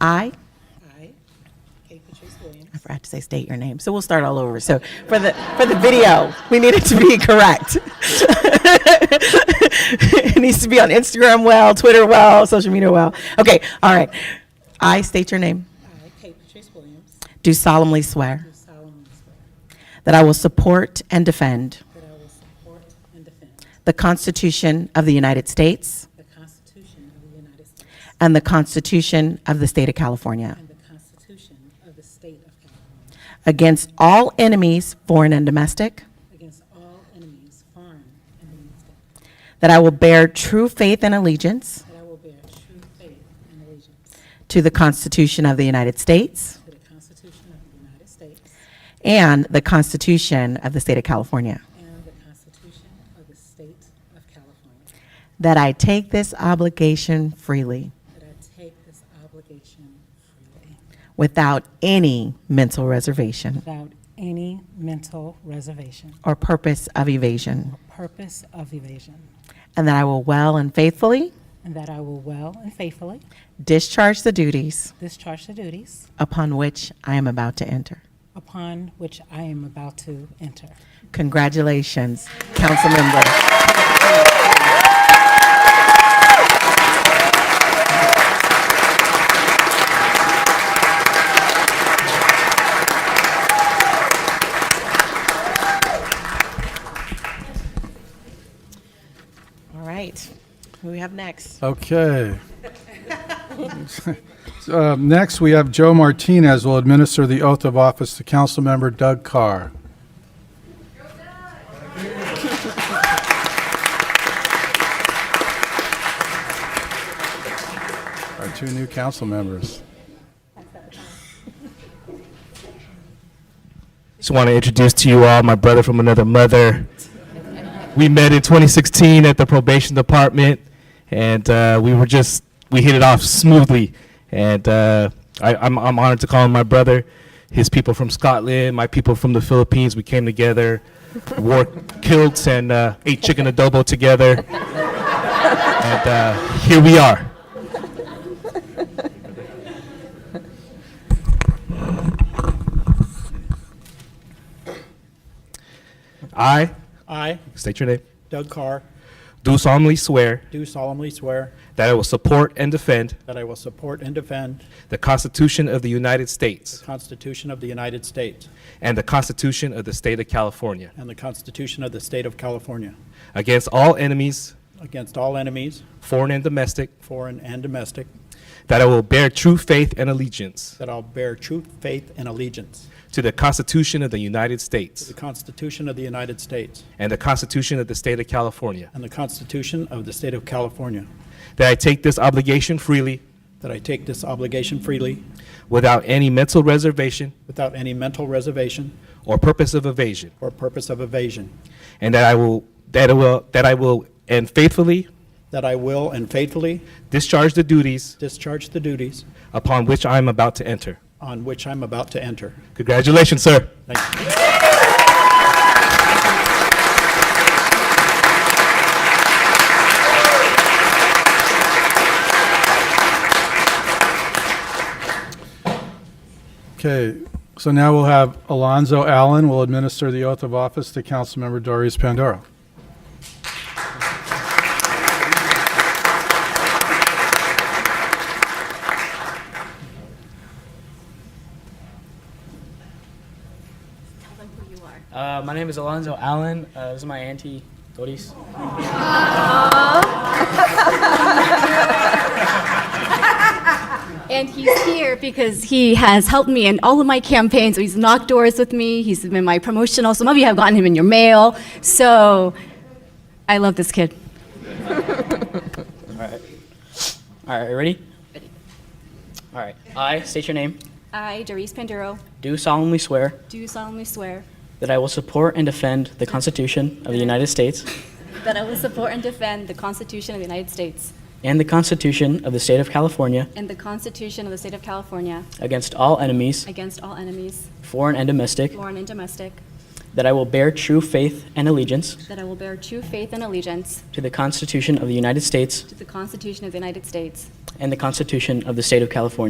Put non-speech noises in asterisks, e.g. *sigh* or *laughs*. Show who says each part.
Speaker 1: I,
Speaker 2: I, Kate Patrice Williams,
Speaker 1: I forgot to say state your name, so we'll start all over. So for the, for the video, we need it to be correct. *laughs* It needs to be on Instagram well, Twitter well, social media well. Okay, all right. I state your name.
Speaker 2: I, Kate Patrice Williams,
Speaker 1: Do solemnly swear
Speaker 2: do solemnly swear
Speaker 1: that I will support and defend
Speaker 2: that I will support and defend
Speaker 1: the Constitution of the United States
Speaker 2: the Constitution of the United States
Speaker 1: and the Constitution of the State of California
Speaker 2: and the Constitution of the State of California
Speaker 1: against all enemies, foreign and domestic,
Speaker 2: against all enemies, foreign and domestic,
Speaker 1: that I will bear true faith and allegiance
Speaker 2: that I will bear true faith and allegiance
Speaker 1: to the Constitution of the United States
Speaker 2: to the Constitution of the United States
Speaker 1: and the Constitution of the State of California,
Speaker 2: and the Constitution of the State of California,
Speaker 1: that I take this obligation freely
Speaker 2: that I take this obligation freely
Speaker 1: without any mental reservation
Speaker 2: without any mental reservation
Speaker 1: or purpose of evasion,
Speaker 2: or purpose of evasion,
Speaker 1: and that I will well and faithfully
Speaker 2: and that I will well and faithfully
Speaker 1: discharge the duties
Speaker 2: Discharge the duties
Speaker 1: upon which I am about to enter.
Speaker 2: upon which I am about to enter.
Speaker 1: Congratulations, council member. All right, who we have next?
Speaker 3: Okay. *laughs* Uh, Next, we have Joe Martinez will administer the oath of office to Councilmember Doug Carr. Our two new council members.
Speaker 4: Just want to introduce to you all my brother from another mother. We met in 2016 at the probation department, and uh, we were just we hit it off smoothly. And uh, I, I'm I'm honored to call him my brother. His people from Scotland, my people from the Philippines. We came together, wore kilts, and uh, ate chicken adobo together. and uh, here we are. I
Speaker 5: I,
Speaker 4: state your name.
Speaker 5: Doug Carr,
Speaker 4: Do solemnly swear
Speaker 5: do solemnly swear
Speaker 4: that I will support and defend
Speaker 5: that I will support and defend
Speaker 4: the Constitution of the United States
Speaker 5: the Constitution of the United States
Speaker 4: and the Constitution of the State of California
Speaker 5: and the Constitution of the State of California
Speaker 4: against all enemies,
Speaker 5: against all enemies,
Speaker 4: foreign and domestic,
Speaker 5: foreign and domestic,
Speaker 4: that I will bear true faith and allegiance
Speaker 5: that I'll bear true faith and allegiance
Speaker 4: to the Constitution of the United
Speaker 5: to the
Speaker 4: States
Speaker 5: Constitution of the United States
Speaker 4: and the Constitution of the State of California,
Speaker 5: and the Constitution of the State of California,
Speaker 4: that I take this obligation freely
Speaker 5: that I take this obligation freely
Speaker 4: without any mental reservation
Speaker 5: without any mental reservation
Speaker 4: or purpose of evasion,
Speaker 5: or purpose of evasion,
Speaker 4: and that I will that I will that I will and faithfully
Speaker 5: that I will and faithfully
Speaker 4: discharge the duties
Speaker 5: discharge the duties
Speaker 4: upon which I am about to enter.
Speaker 5: on which I'm about to enter.
Speaker 4: Congratulations, sir.
Speaker 5: Thank you.
Speaker 3: Okay, so now we'll have Alonzo Allen will administer the oath of office to Councilmember Doris Pandora.
Speaker 6: Tell them who you are. Uh, my name is Alonzo Allen. Uh, this is my auntie, Doris.
Speaker 7: And he's here because he has helped me in all of my campaigns. He's knocked doors with me. He's been my promotional. Some of you have gotten him in your mail. So I love this kid.
Speaker 6: All right, ready? Ready. All right. I state your name.
Speaker 7: I, Doris Panduro,
Speaker 6: Do solemnly swear
Speaker 7: do solemnly swear
Speaker 6: that I will support and defend the Constitution of the United States
Speaker 7: that I will support and defend the Constitution of the United States
Speaker 6: and the Constitution of the State of California
Speaker 7: and the Constitution of the State of California
Speaker 6: against all enemies,
Speaker 7: against all enemies,
Speaker 6: foreign and domestic.
Speaker 7: foreign and domestic,
Speaker 6: That I will bear true faith and allegiance
Speaker 7: that I will bear true faith and allegiance
Speaker 6: to the Constitution of the United States
Speaker 7: to the Constitution of the United States
Speaker 6: and the Constitution of the State of California.